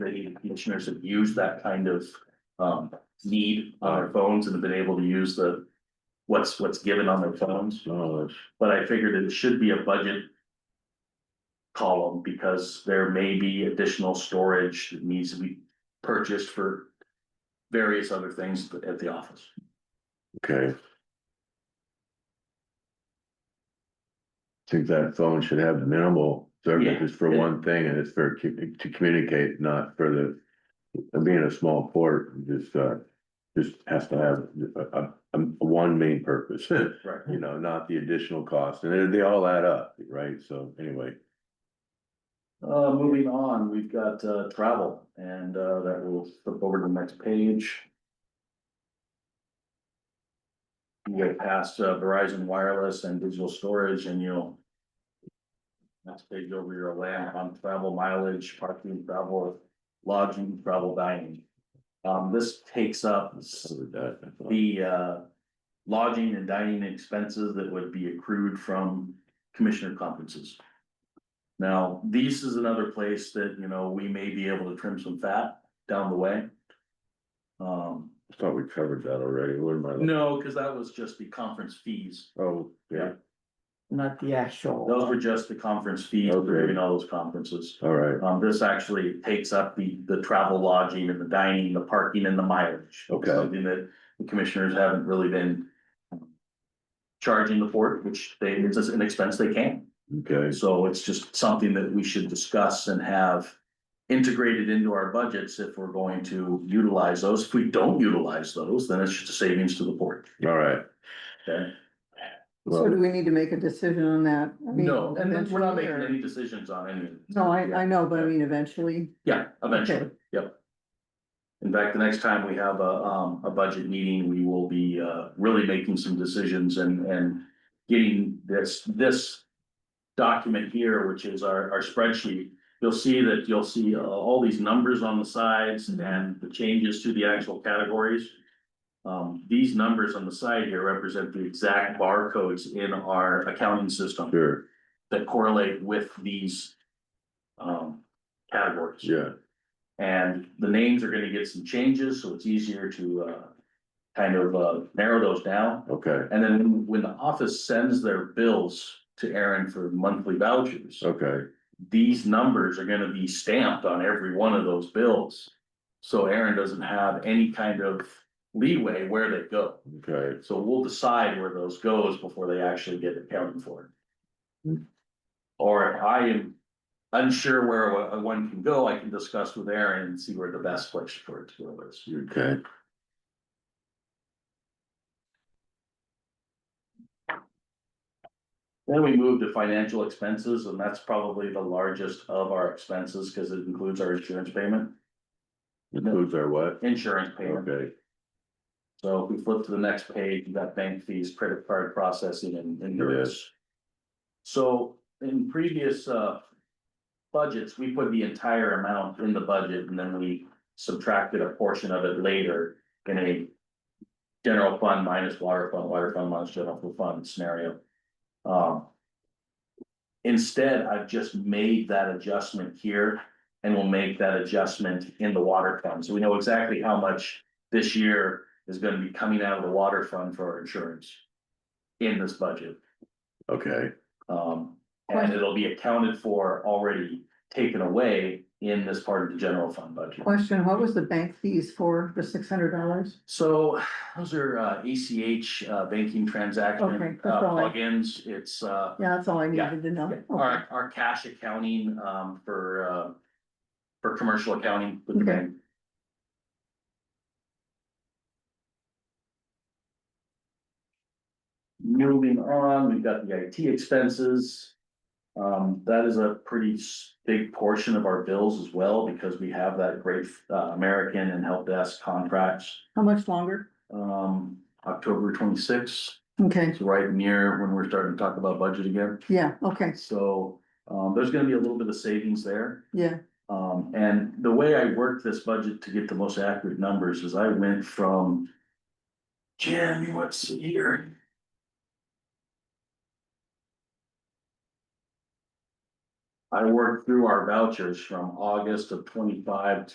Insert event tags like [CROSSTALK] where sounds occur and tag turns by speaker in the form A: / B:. A: the commissioners have used that kind of um need on their phones and have been able to use the. What's what's given on their phones,
B: Oh, that's-
A: but I figured it should be a budget. Column because there may be additional storage that needs to be purchased for. Various other things at the office.
B: okay. Think that phone should have minimal service
A: Yeah,
B: is for
A: yeah.
B: one thing and it's for cu- to communicate, not for the. Being a small port, just uh, just has to have a a- a- one main purpose, [LAUGHS] you
A: Right.
B: know, not the additional cost, and they they all add up, right? So anyway.
A: Uh, moving on, we've got uh travel and uh that will flip over to the next page. You go past uh, Verizon Wireless and Digital Storage and you'll. Next page over your land on travel mileage, parking, travel, lodging, travel dining. Um, this takes up
B: so with that, I thought-
A: the uh lodging and dining expenses that would be accrued from commissioner conferences. Now, this is another place that, you know, we may be able to trim some fat down the way. Um,
B: I Thought we covered that already, what am I? looking-
A: no, because that was just the conference fees.
B: Oh, yeah,
C: not the
A: Those
C: actual.
A: were just the conference fees, for
B: Okay.
A: doing all those conferences.
B: all right,
A: Um, this actually takes up the, the travel lodging and the dining, the parking and the mileage.
B: Okay.
A: Something that the commissioners haven't really been. um, Charging the port, which they, it's just an expense they can,
B: okay,
A: so it's just something that we should discuss and have. Integrated into our budgets if we're going to utilize those, if we don't utilize those, then it's just a savings to the port,
B: all right.
A: okay?
C: So do
B: Well,
C: we need to make a decision on that? I mean,
A: No, and then we're not making
C: eventually,
A: any decisions on any. of
C: or-
A: this.
C: No, I, I know, but I mean, eventually,
A: Yeah, eventually,
C: Okay.
A: yep. In fact, the next time we have a, um, a budget meeting, we will be, uh, really making some decisions and, and getting this, this document here, which is our, our spreadsheet. You'll see that, you'll see uh, all these numbers on the sides
B: Mm-hmm.
A: and the changes to the actual categories. Um, these numbers on the side here represent the exact barcodes in our accounting system
B: sure,
A: that correlate with these, um, categories.
B: yeah,
A: And the names are gonna get some changes, so it's easier to uh kind of uh narrow those down.
B: okay,
A: And then when the office sends their bills to Aaron for monthly vouchers,
B: okay,
A: these numbers are gonna be stamped on every one of those bills. So Aaron doesn't have any kind of leeway where they go.
B: okay,
A: So we'll decide where those goes before they actually get accounted for.
B: Hmm.
A: Or if I am unsure where a- a one can go, I can discuss with Aaron and see where the best place for it to go is.
B: okay.
A: Then we move to financial expenses, and that's probably the largest of our expenses, because it includes our insurance payment,
B: Includes our what?
A: insurance payment.
B: Okay,
A: So if we flip to the next page, you've got bank fees, credit card processing and and interest. So in previous uh. Budgets, we put the entire amount in the budget and then we subtracted a portion of it later in a. General fund minus water fund, water fund minus general fund scenario. Um. Instead, I've just made that adjustment here and we'll make that adjustment in the water fund. So we know exactly how much this year is gonna be coming out of the water fund for our insurance. In this budget,
B: okay,
A: um, and it'll be accounted for already taken away in this part of the general fund budget.
C: question, what was the bank fees for the six hundred dollars?
A: So those are uh ACH uh banking
C: Okay,
A: transaction
C: that's
A: uh
C: all I-
A: plugins, it's uh.
C: Yeah, that's all I
A: Yeah,
C: needed to know. Okay.
A: Our our cash accounting um for uh. For commercial accounting with the
C: Okay.
A: bank. Moving on, we've got the IT expenses. Um, that is a pretty s- big portion of our bills as well, because we have that great uh American and help desk contracts.
C: How much longer?
A: Um, October twenty-sixth,
C: Okay,
A: it's right near when we're starting to talk about budget again.
C: yeah, okay,
A: So um there's gonna be a little bit of savings there.
C: yeah,
A: Um and the way I worked this budget to get the most accurate numbers is I went from. Jim, what's here? I worked through our vouchers from August of twenty-five